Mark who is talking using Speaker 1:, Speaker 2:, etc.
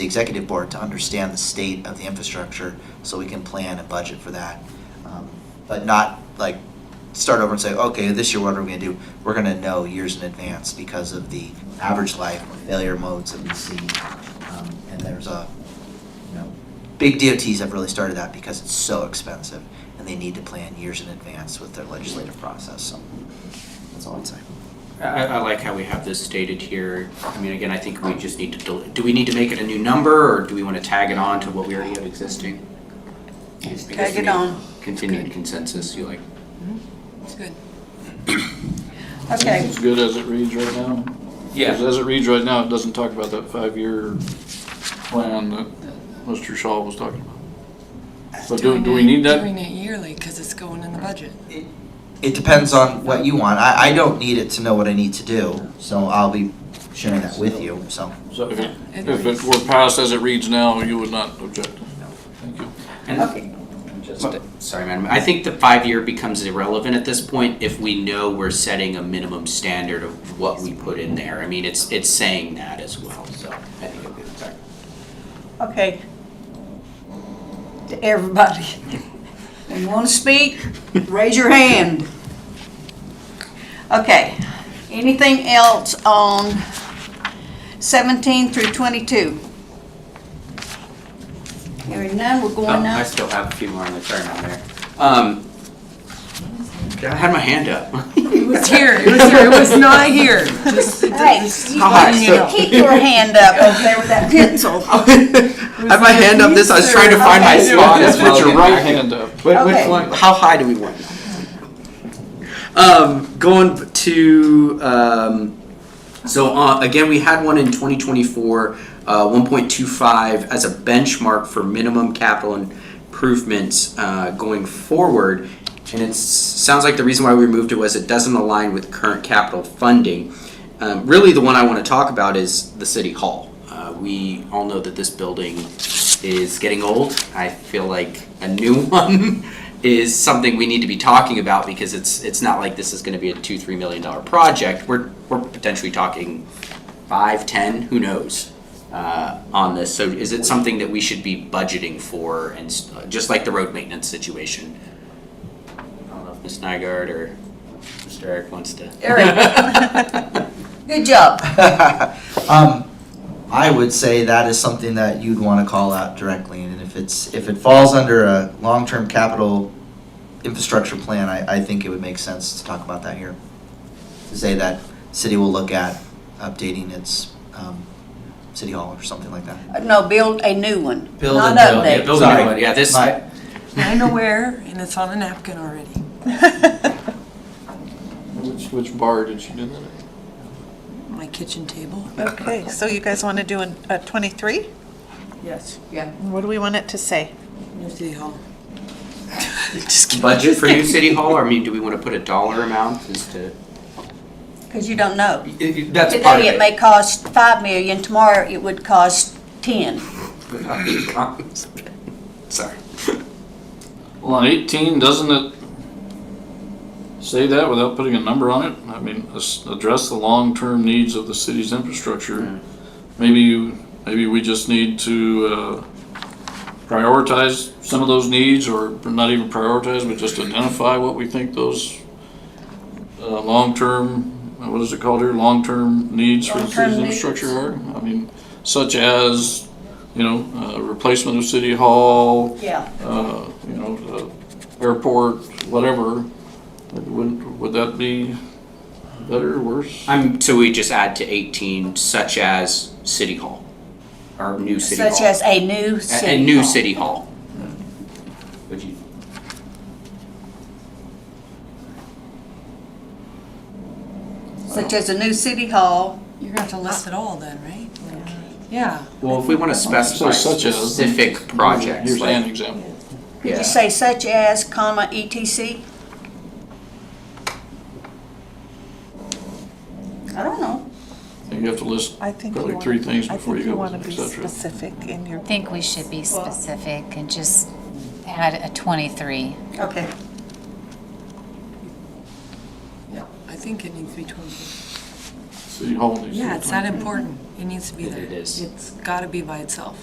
Speaker 1: the executive board to understand the state of the infrastructure so we can plan and budget for that. Um, But not like start over and say, okay, this year what are we gonna do? We're gonna know years in advance because of the average life or failure modes that we see. Um, And there's a, you know, big DOTs have really started that because it's so expensive and they need to plan years in advance with their legislative process, so that's all I'd say.
Speaker 2: I, I like how we have this stated here. I mean, again, I think we just need to, del- do we need to make it a new number or do we want to tag it on to what we already have existing?
Speaker 3: Just
Speaker 2: I guess
Speaker 3: tag
Speaker 2: we
Speaker 3: it
Speaker 2: need
Speaker 3: on.
Speaker 2: Continued consensus, you like,
Speaker 3: It's good. Okay,
Speaker 4: It's good as it reads right now.
Speaker 2: Yeah.
Speaker 4: As it reads right now, it doesn't talk about that five-year plan that Mr. Shaw was talking about. So do, do we need that?
Speaker 5: Doing it yearly, because it's going in the budget.
Speaker 1: It depends on what you want. I, I don't need it to know what I need to do, so I'll be sharing that with you, so.
Speaker 4: So if it, if it were passed as it reads now, you would not object? Thank you.
Speaker 2: and
Speaker 3: okay,
Speaker 2: just, sorry, madam, I think the five-year becomes irrelevant at this point if we know we're setting a minimum standard of what we put in there. I mean, it's, it's saying that as well, so I think it'll be better.
Speaker 3: okay. To everybody. When you want to speak, raise your hand. Okay, anything else on 17 through 22? Hearing none, we're
Speaker 2: Oh,
Speaker 3: going
Speaker 2: I
Speaker 3: now.
Speaker 2: still have a few more on the turn on there. Um, I had my hand up.
Speaker 5: It was here, it was here, it was not here. Just-
Speaker 3: Hey,
Speaker 2: Hi,
Speaker 3: you-
Speaker 2: so-
Speaker 3: you keep your hand up over there with that pencil.
Speaker 2: I have my hand up this. I was trying to find my
Speaker 3: Okay.
Speaker 2: spot as well.
Speaker 4: Put your right hand up.
Speaker 2: Which,
Speaker 3: Okay.
Speaker 2: which one? How high do we want? Um, going to um, so uh, again, we had one in 2024, uh, 1.25 as a benchmark for minimum capital improvements uh, going forward. And it sounds like the reason why we removed it was it doesn't align with current capital funding. Um, really, the one I want to talk about is the city hall. Uh, we all know that this building is getting old. I feel like a new one is something we need to be talking about because it's it's not like this is going to be a two three million dollar project. We're we're potentially talking five ten, who knows, uh, on this. So is it something that we should be budgeting for, and s- uh, just like the road maintenance situation? I don't know if Ms. Nygaard or Mr. Eric wants to.
Speaker 3: Eric. Good job.
Speaker 1: Um, I would say that is something that you'd wanna call out directly, and if it's, if it falls under a long-term capital infrastructure plan, I, I think it would make sense to talk about that here. To say that city will look at updating its, um, city hall or something like that.
Speaker 3: No, build a new one,
Speaker 1: Build and
Speaker 3: not
Speaker 1: build,
Speaker 2: yeah,
Speaker 3: update.
Speaker 2: build- a new
Speaker 1: Sorry.
Speaker 2: one. Yeah, this-
Speaker 1: My-
Speaker 5: I know where, and it's on a napkin already.
Speaker 4: Which, which bar did you do that at?
Speaker 5: My kitchen table.
Speaker 6: Okay, so you guys want to do an- a 23?
Speaker 5: Yes.
Speaker 6: What do we want it to say?
Speaker 5: New City Hall.
Speaker 2: budget for new city hall, or I mean, do we want to put a dollar amount as to?
Speaker 3: Because you don't know.
Speaker 2: That's part
Speaker 3: Today it may cost five million, tomorrow it would cost ten.
Speaker 2: Uh, Sorry.
Speaker 4: Well, on eighteen, doesn't it say that without putting a number on it? I mean, as- address the long-term needs of the city's infrastructure. Maybe, you- maybe we just need to, uh, prioritize some of those needs, or not even prioritize, but just identify what we think those, uh, long-term, what is it called here, long-term needs for the
Speaker 3: Long-term
Speaker 4: city's
Speaker 3: needs.
Speaker 4: infrastructure are? I mean, such as, you know, uh, replacement of city hall,
Speaker 3: Yeah.
Speaker 4: uh, you know, the airport, whatever, would, would that be better, worse?
Speaker 2: I'm, so we just add to eighteen, such as city hall, or new city hall.
Speaker 3: Such as a new
Speaker 2: A-
Speaker 3: city.
Speaker 2: A, new
Speaker 3: hall.
Speaker 2: city hall. Would you?
Speaker 3: Such as a new city hall.
Speaker 5: You're gonna have to list it all then, right? Yeah.
Speaker 2: Well, if we want to specify
Speaker 4: So such as-
Speaker 2: specific projects,
Speaker 4: Here's an
Speaker 2: like,
Speaker 4: example.
Speaker 3: Could
Speaker 2: yeah.
Speaker 3: you say such as, comma, E ETC? I don't know.
Speaker 4: You have to list
Speaker 6: I think you
Speaker 4: probably
Speaker 6: want.
Speaker 4: three things before you go
Speaker 6: I
Speaker 4: with
Speaker 6: think
Speaker 4: et
Speaker 6: you want to be
Speaker 4: cetera.
Speaker 6: specific in your,
Speaker 7: I think we should be specific and just add a 23.
Speaker 3: Okay.
Speaker 5: I think it needs to be twenty.
Speaker 4: City Hall needs to be
Speaker 5: Yeah, it's that
Speaker 4: 23.
Speaker 5: Mhm. important, It needs to be
Speaker 2: It-
Speaker 5: there.
Speaker 2: it is.
Speaker 5: It's gotta be by itself.